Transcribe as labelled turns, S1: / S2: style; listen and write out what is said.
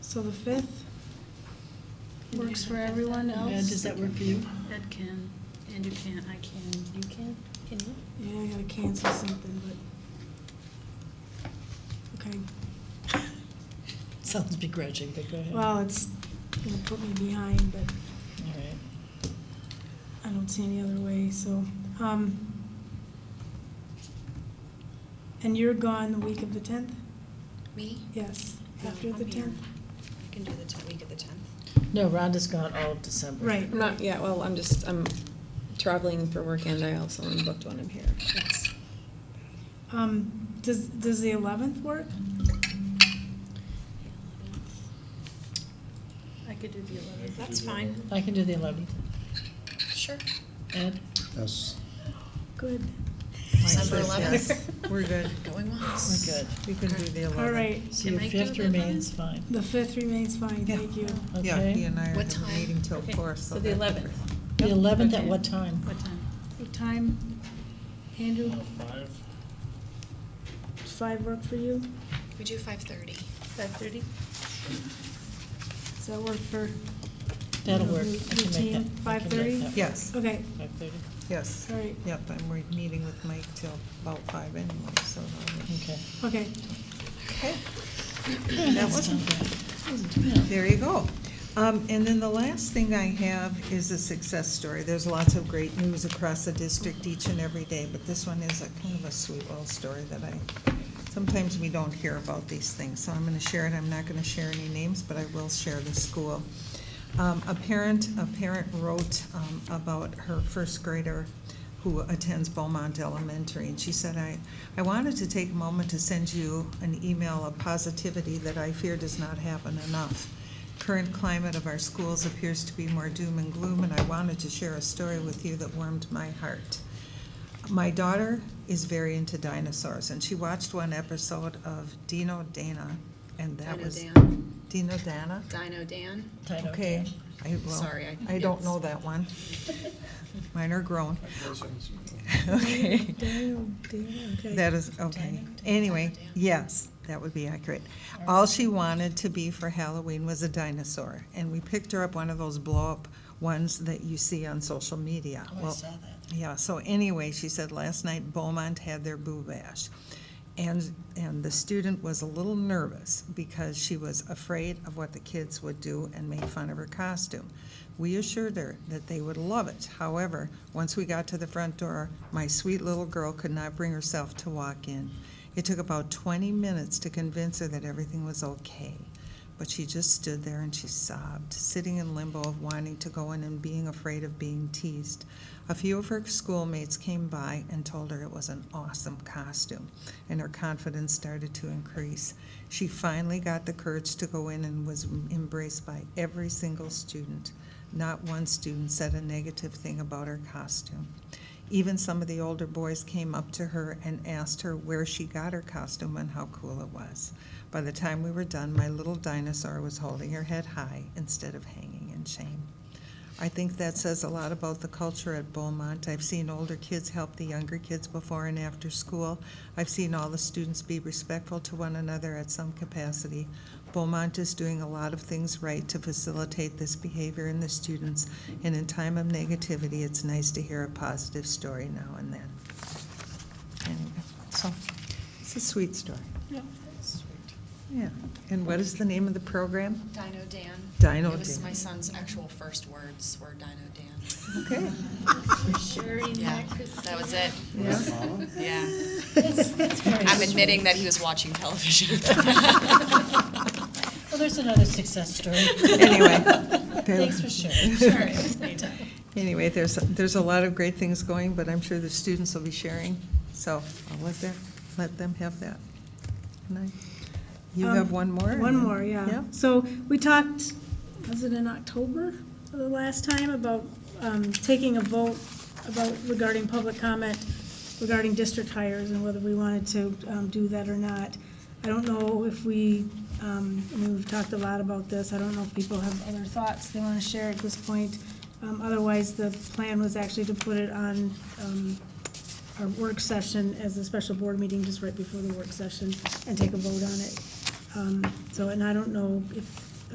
S1: So the fifth works for everyone
S2: Yeah, does
S1: else?
S2: that work for you?
S3: Ed can, and you can, I can, you can, can you?
S1: Yeah, I gotta cancel something, but, okay.
S2: Sounds begrudging, but go ahead. All
S1: Well, it's gonna put me behind, but
S2: right.
S1: I don't see any other way, so, um, and you're gone the week of the tenth?
S4: Me?
S1: Yes,
S4: No,
S1: after the
S4: I'm here.
S1: tenth?
S4: I can do the tenth, week of the tenth.
S2: No, Rhonda's gone all of December.
S1: Right,
S4: I'm not, yeah, well, I'm just, I'm traveling for work and I also am booked when I'm here. It's-
S1: um, does, does the eleventh work?
S3: I could do the eleventh.
S4: That's fine.
S2: I can do the 11th.
S4: Sure.
S2: Ed?
S5: Yes.
S1: Good,
S4: December
S2: Yes.
S4: eleventh.
S6: We're good.
S4: Going once.
S2: We're good.
S6: We can do the 11th.
S1: all right,
S2: So
S3: Can
S2: your
S3: I do
S2: fifth
S3: the 11th?
S2: remains fine,
S1: the fifth remains fine,
S6: Yeah.
S1: thank you.
S6: Yeah, he
S2: okay?
S6: and I are
S4: What
S6: having a
S4: time?
S6: meeting till
S3: Okay,
S6: four,
S3: So
S6: so.
S3: the
S6: that-
S3: eleventh,
S2: The 11th at
S3: Okay.
S2: what time?
S3: what time?
S1: What time, Andrew,
S7: Five,
S1: does five work for you?
S4: We do five thirty.
S3: Five thirty?
S1: Does that work for?
S2: That'll
S1: you know,
S2: work.
S1: the-
S2: I
S1: the
S2: can make
S1: team?
S2: that- I can
S1: Five thirty?
S2: make that
S6: Yes,
S1: Okay,
S2: 5:30?
S6: yes.
S1: all right,
S6: Yep, and we're meeting with Mike till about five anyway, so.
S2: Okay.
S1: okay.
S6: Okay.
S2: Yeah,
S6: That
S2: that's
S6: wasn't
S2: not bad. Yeah.
S6: There you go. Um, And then the last thing I have is a success story. There's lots of great news across the district each and every day, but this one is a kind of a sweet little story that I, sometimes we don't hear about these things, so I'm gonna share it. I'm not gonna share any names, but I will share the school. Um, A parent, a parent wrote um, about her first grader who attends Beaumont Elementary, and she said, "I, I wanted to take a moment to send you an email of positivity that I fear does not happen enough. Current climate of our schools appears to be more doom and gloom, and I wanted to share a story with you that warmed my heart. My daughter is very into dinosaurs, and she watched one episode of Dino Dana, and that
S4: Dino
S6: was
S4: Dan.
S6: Dino Dana.
S4: Dino Dan.
S2: Tight,
S6: Okay, I, well,
S4: Sorry, I-
S6: I don't
S4: it's-
S6: know that one. Mine are grown.
S7: I guess I'm seeing it.
S6: Okay.
S1: Daniel, Daniel, okay.
S6: That is, okay. Anyway, yes, that would be accurate. All she wanted to be for Halloween was a dinosaur, and we picked her up one of those blow-up ones that you see on social media.
S2: Oh, I
S6: Well,
S2: saw that.
S6: yeah, so anyway, she said last night Beaumont had their boo bash. And, and the student was a little nervous because she was afraid of what the kids would do and make fun of her costume. We assured her that they would love it. However, once we got to the front door, my sweet little girl could not bring herself to walk in. It took about 20 minutes to convince her that everything was okay. But she just stood there and she sobbed, sitting in limbo of wanting to go in and being afraid of being teased. A few of her schoolmates came by and told her it was an awesome costume, and her confidence started to increase. She finally got the courage to go in and was embraced by every single student. Not one student said a negative thing about her costume. Even some of the older boys came up to her and asked her where she got her costume and how cool it was. By the time we were done, my little dinosaur was holding her head high instead of hanging in shame. I think that says a lot about the culture at Beaumont. I've seen older kids help the younger kids before and after school. I've seen all the students be respectful to one another at some capacity. Beaumont is doing a lot of things right to facilitate this behavior in the students, and in time of negativity, it's nice to hear a positive story now and then. Anyway, so, it's a sweet story. Yeah. And what is the name of the program?
S4: Dino Dan.
S6: Dino
S4: It was
S6: Dan.
S4: my son's actual first words were Dino Dan.
S6: Okay.
S3: Sure, in
S4: Yeah, that was it.
S6: Yeah.
S4: Yeah.
S2: Very
S4: I'm
S2: sweet.
S4: admitting that he was watching television.
S2: Well, Oh, there's another success story.
S6: Anyway.
S2: Thanks for sharing.
S6: Anyway, there's, there's a lot of great things going, but I'm sure the students will be sharing, so I'll let them, let them have that. And I- You
S1: Um,
S6: have one more?
S1: One more, yeah.
S6: Yeah.
S1: So we talked, was it in October, the last time, about um, taking a vote about regarding public comment regarding district hires and whether we wanted to um, do that or not. I don't know if we, um, I mean, we've talked a lot about this. I don't know if people have other thoughts they want to share at this point. Um, Otherwise, the plan was actually to put it on um, our work session as a special board meeting just right before the work session and take a vote on it. Um, So, and I don't know if